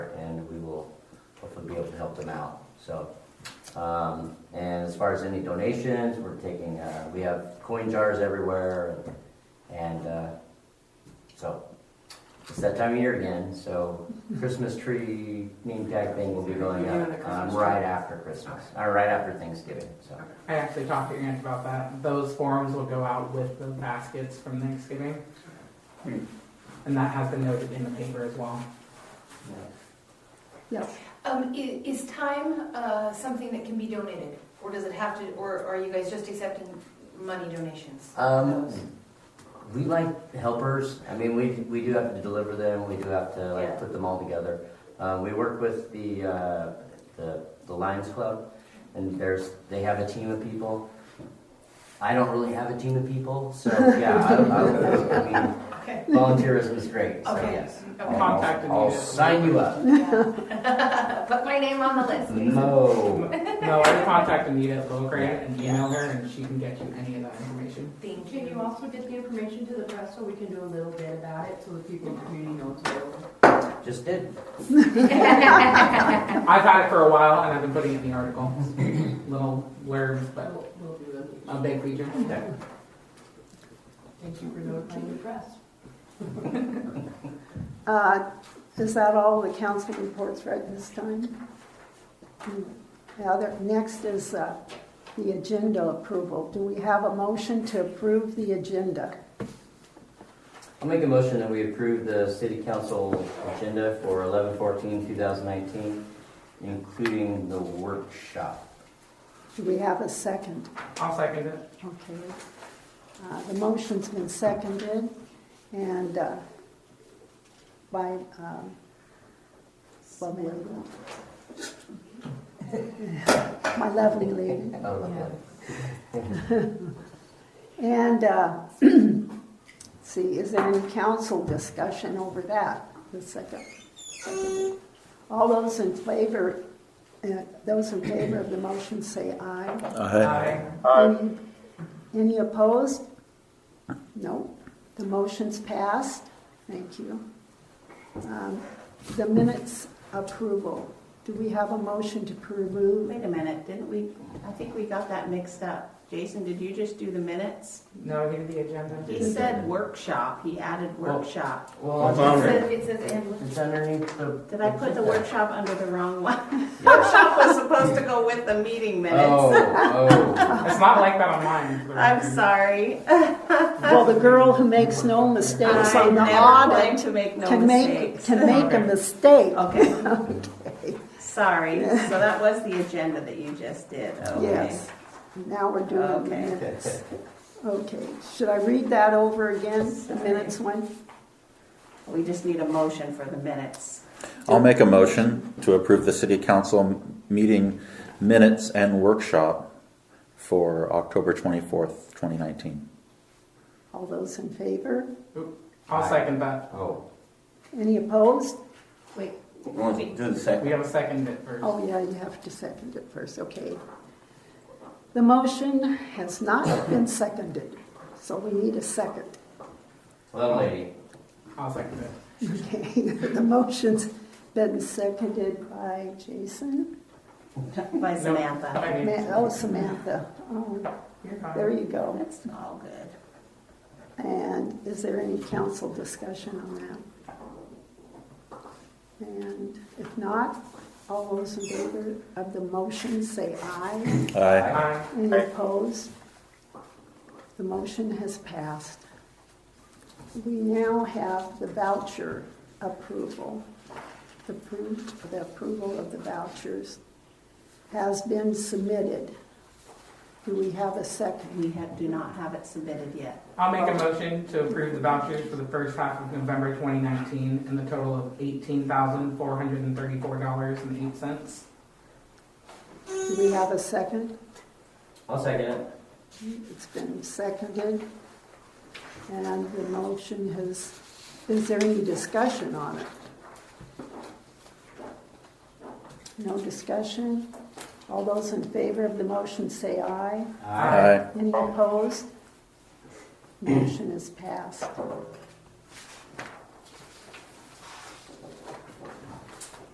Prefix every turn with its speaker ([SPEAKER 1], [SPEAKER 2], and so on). [SPEAKER 1] help them out, so. Um, and as far as any donations, we're taking, uh, we have coin jars everywhere and, uh, so. It's that time of year again, so Christmas tree name tag thing will be going
[SPEAKER 2] You're doing the
[SPEAKER 1] up, um,
[SPEAKER 2] Christmas
[SPEAKER 1] right
[SPEAKER 2] tree?
[SPEAKER 1] after Christmas, or right after Thanksgiving, so.
[SPEAKER 3] I actually talked to Aunt about that. Those forms will go out with the baskets from Thanksgiving. And that has been noted in the paper as well.
[SPEAKER 4] Um, i- is time, uh, something that can be donated, or does it have to, or are you guys just accepting money donations?
[SPEAKER 1] Um, we like helpers. I mean, we, we do have to deliver them. We do have to like
[SPEAKER 4] Yeah.
[SPEAKER 1] put them all together. Uh, we work with the, uh, the the Lions Club, and there's they have a team of people. I don't really have a team of people, so yeah. I, I, I mean,
[SPEAKER 4] Okay,
[SPEAKER 1] volunteerism is great. So
[SPEAKER 4] Okay.
[SPEAKER 1] yes,
[SPEAKER 4] okay.
[SPEAKER 1] I'll-
[SPEAKER 3] Contacted me
[SPEAKER 1] I'll,
[SPEAKER 3] to-
[SPEAKER 1] sign you up.
[SPEAKER 4] Yeah. Put my name on the list.
[SPEAKER 1] Mm-hmm. No,
[SPEAKER 3] No, I contacted Anita at Little Grant and emailed her and she can get you any of that information.
[SPEAKER 4] Thank
[SPEAKER 5] Can you
[SPEAKER 4] you.
[SPEAKER 5] also get the information to the press so we can do a little bit about it, so the people in the community know it's available?
[SPEAKER 1] just did.
[SPEAKER 3] I've had it for a while and I've been putting it in the article. Little blurbs, but
[SPEAKER 5] We'll, we'll do it.
[SPEAKER 3] a big feature.
[SPEAKER 5] Thank you for notifying the press.
[SPEAKER 6] Uh, Is that all the council reports read this time? The other, next is uh, the agenda approval. Do we have a motion to approve the agenda?
[SPEAKER 1] I'll make a motion that we approve the city council agenda for 11-14-2019, including the workshop.
[SPEAKER 6] Do we have a second?
[SPEAKER 3] I'll second it.
[SPEAKER 6] Okay. Uh, The motion's been seconded and uh, by, um, by my lady. My lovely lady.
[SPEAKER 1] Oh, lovely.
[SPEAKER 6] And, uh, see, is there any council discussion over that? The second. All those in favor, uh, those in favor of the motion say aye.
[SPEAKER 3] Aye.
[SPEAKER 6] Aye. Any opposed? No. The motion's passed. Thank you. Um, The minutes approval. Do we have a motion to approve?
[SPEAKER 7] Wait a minute, didn't we, I think we got that mixed up. Jason, did you just do the minutes?
[SPEAKER 3] No, I did the agenda.
[SPEAKER 7] He said workshop, he added workshop.
[SPEAKER 1] Well,
[SPEAKER 4] It says- It says, and
[SPEAKER 1] it's underneath the.
[SPEAKER 7] Did I put the
[SPEAKER 1] workshop?
[SPEAKER 7] workshop under the wrong one?
[SPEAKER 1] Oh,
[SPEAKER 7] Workshop was supposed to go with the meeting minutes.
[SPEAKER 1] oh.
[SPEAKER 3] It's not like that on mine. but-
[SPEAKER 7] I'm sorry.
[SPEAKER 6] Well, the girl who makes no mistakes
[SPEAKER 7] I
[SPEAKER 6] on the
[SPEAKER 7] never
[SPEAKER 6] audit
[SPEAKER 7] claim to make no
[SPEAKER 6] to make,
[SPEAKER 7] mistakes.
[SPEAKER 6] to make a
[SPEAKER 3] Okay.
[SPEAKER 6] mistake.
[SPEAKER 7] Oh, Okay. Sorry, so that was the agenda that you just did, okay.
[SPEAKER 6] Yes. Now we're doing the
[SPEAKER 7] Okay.
[SPEAKER 6] minutes. Okay, should I read that over again, the minutes one?
[SPEAKER 7] We just need a motion for the minutes.
[SPEAKER 8] I'll make a motion to approve the city council meeting minutes and workshop for October 24th, 2019.
[SPEAKER 6] All those in favor?
[SPEAKER 3] I'll second that.
[SPEAKER 1] Oh.
[SPEAKER 6] Any opposed?
[SPEAKER 7] Wait,
[SPEAKER 8] Do the
[SPEAKER 3] We
[SPEAKER 8] second.
[SPEAKER 3] have a second it first.
[SPEAKER 6] Oh, yeah, you have to second it first, okay. The motion has not been seconded, so we need a second.
[SPEAKER 1] Little lady.
[SPEAKER 3] I'll second it.
[SPEAKER 6] Okay, the motion's been seconded by Jason.
[SPEAKER 7] by
[SPEAKER 3] No, but
[SPEAKER 7] Samantha.
[SPEAKER 3] I
[SPEAKER 6] Ma-
[SPEAKER 3] mean,
[SPEAKER 6] Oh, Samantha, oh,
[SPEAKER 3] you're fine.
[SPEAKER 6] there you go.
[SPEAKER 7] That's all good.
[SPEAKER 6] And is there any council discussion on that? And if not, all those in favor of the motion say aye.
[SPEAKER 8] Aye.
[SPEAKER 3] Aye.
[SPEAKER 6] Any opposed? The motion has passed. We now have the voucher approval. The appro- the approval of the vouchers has been submitted. Do we have a second?
[SPEAKER 7] We have, do not have it submitted yet.
[SPEAKER 3] I'll make a motion to approve the vouchers for the first half of November 2019 in the total of $18,434.08.
[SPEAKER 6] Do we have a second?
[SPEAKER 1] I'll second it.
[SPEAKER 6] It's been seconded, and the motion has, is there any discussion on it? No discussion? All those in favor of the motion say aye.
[SPEAKER 3] Aye.
[SPEAKER 8] Aye.
[SPEAKER 6] Any opposed? Motion is passed.